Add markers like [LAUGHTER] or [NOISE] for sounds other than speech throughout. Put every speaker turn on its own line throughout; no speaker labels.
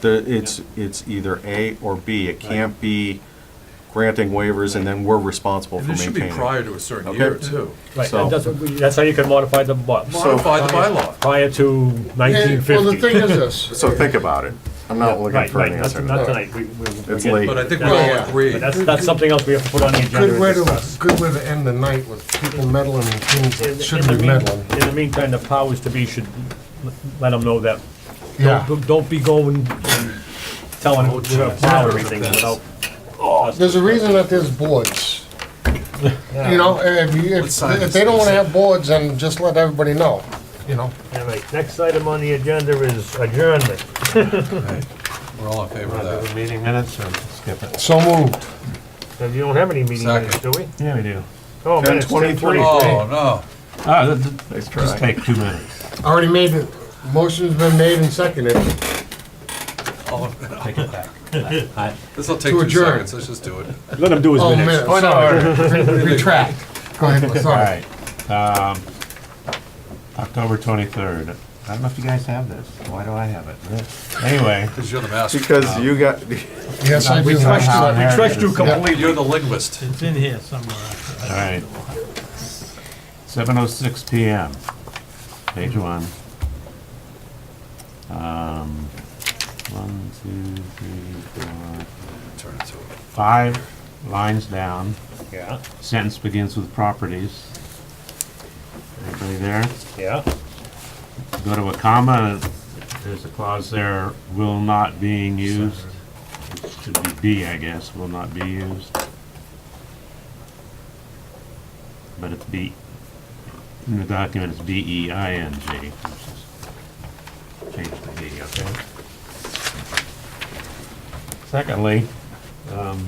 The, it's, it's either A or B. It can't be granting waivers and then we're responsible
And
for
this should be
maintaining.
prior
it.
to a certain
Okay.
year, too.
Right,
So-
that- that's, that's how you can modify the bylaw,
Modify the bylaw.
prior to nineteen
And- Well, the thing
fifty.
[LAUGHS]
is this,
So think about it. I'm not looking
Right,
for an
right, not
answer
to-
to
not
that.
tonight, we, we.
It's late.
But I think we
Yeah.
all
Yeah.
agree.
But that's, that's something else we have to put on the agenda
good way
and
to,
discuss.
good way to end the night with people meddling and things
In- in
that shouldn't
the
be
mean-
meddling.
In the meantime, the powers to be should l- let them know that,
Yeah,
don't, don't be going and telling them to plow everything without.
there's a reason that there's boards. You know, if, you-
What
if
size
if they don't
is
wanna
it?
have boards, then just let everybody know, you know?
All right, next item on the agenda is adjournment.
We're all in favor of that.
Meeting minutes, and
So moved.
and you don't have any meeting minutes, do
Second.
we?
Yeah, we do.
Oh, minutes,
10:23.
10:23.
Oh,
Ah,
Nice try.
take two minutes.
Already made it, motion's been made and seconded.
no. [LAUGHS] This'll take
To
two
adjourn.
seconds, let's just do it.
Let him do his
Oh,
minutes.
man, sorry,
[LAUGHS]
retract. Go ahead,
All
sorry.
right, um, October twenty-third. I don't know if you guys have this. Why do I have it? Anyway.
Because you're the master.
Because you
[LAUGHS]
got,
Yes, I do.
somehow
have-
inherited
Trust you
this.
completely.
You're the linguist.
It's in here somewhere.
All right. Seven oh six PM, page one. Um, one, two, three, four,
Turn it to it.
five lines down.
Yeah,
Sentence begins with properties. Everybody there?
yeah,
go to a comma, there's a clause there, will not being used. It Should be be, I guess, will not be used. But it's B, in the document, it's E B-E-I-N-G. which is- Change the B, okay? Secondly, um,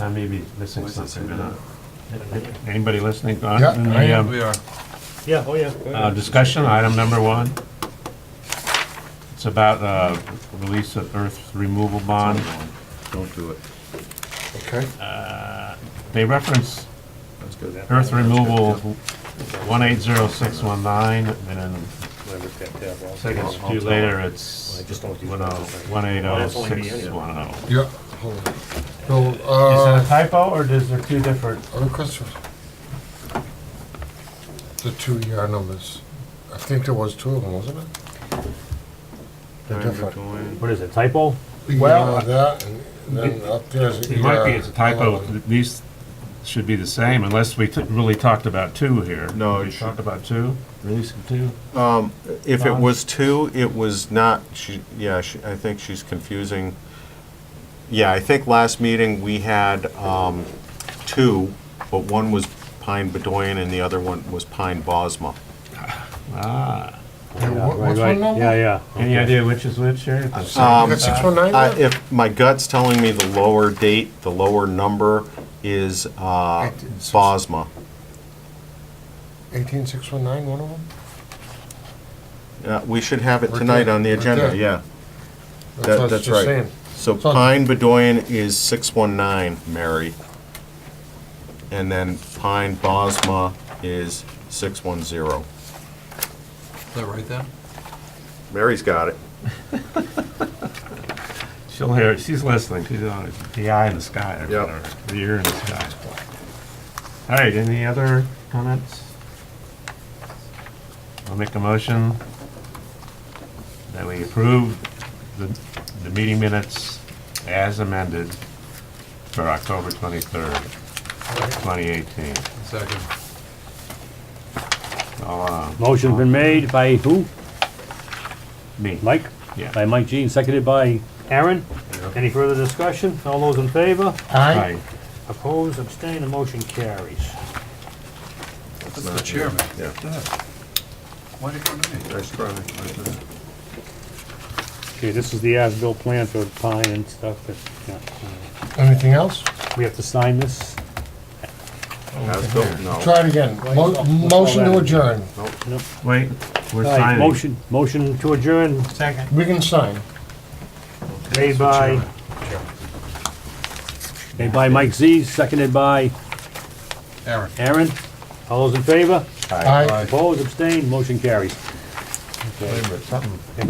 I may be missing
Why does it say
something, but,
that?
uh, anybody listening? um,
Yeah, I am.
We are.
yeah, oh, yeah. go
Uh,
ahead.
discussion, item number one. It's about, uh, release of earth removal bond.
don't do it.
Okay.
They reference
That's good.
earth removal one eight zero six one nine, and then
Whatever that tab was.
second few later, it's
I just don't use
one
that.
oh, one eight oh six one oh.
Yeah, hold on. So,
Is
uh.
that a typo, or is there two different?
Other questions? The two ER numbers. I think there was two of them, wasn't it? They're different.
What is it, typo?
Well,
ER that, and then up there's.
It might be,
ER
it's a typo,
eleven.
these should be the same, unless we t- really talked about two here.
No,
We
it should-
talked about two, release of two?
If
Um,
it was two, it was not, she, yeah, she, I think she's confusing. Yeah, I think last meeting we had, um, two, but one was Pine Bedoyan and the other one was Pine Bosma.
Ah.
Yeah, what-
Right,
What's
right.
one number?
Yeah, yeah.
Any idea which is which, Sherry?
You got six one nine
Um, I,
there?
if my gut's telling me the lower date, the lower number is, uh, Bosma.
Eighteen six one nine, one of them?
Uh, we should have it
Right
tonight on the
there, right
agenda,
there.
yeah.
what I
That,
was
that's
just
right.
saying.
So
So-
Pine Bedoyan is six one nine, Mary. And then Pine Bosma is six one zero.
Is that right then?
Mary's got it.
She'll hear, it. she's listening, she's on the eye in the sky, or
Yep.
whatever, the ear in the sky. All right, any other comments? I'll make a motion that we approve the, the meeting minutes as amended for October twenty-third, twenty eighteen.
Second.
All, uh,
Motion's been made by who?
me,
Mike?
yeah.
By Mike Jean, seconded by Aaron. Any further discussion? All those in favor?
Aye.
Aye.
Opposed, abstained, the motion carries.
That's the chairman.
Yeah.
Why did you come to me?
Nice try.
Okay, this is the as-built plan for Pine and stuff, but, yeah.
Anything else?
We have to sign this?
Oh,
As-built, no.
Try it again. Mo- Motion to adjourn.
Wait, we're
All right,
signing.
Motion, motion to adjourn,
Second.
We can sign.
made by, made by Mike Z, seconded by
Aaron.
Aaron. All those in favor?
Aye.
Opposed, abstained, motion carries.
Something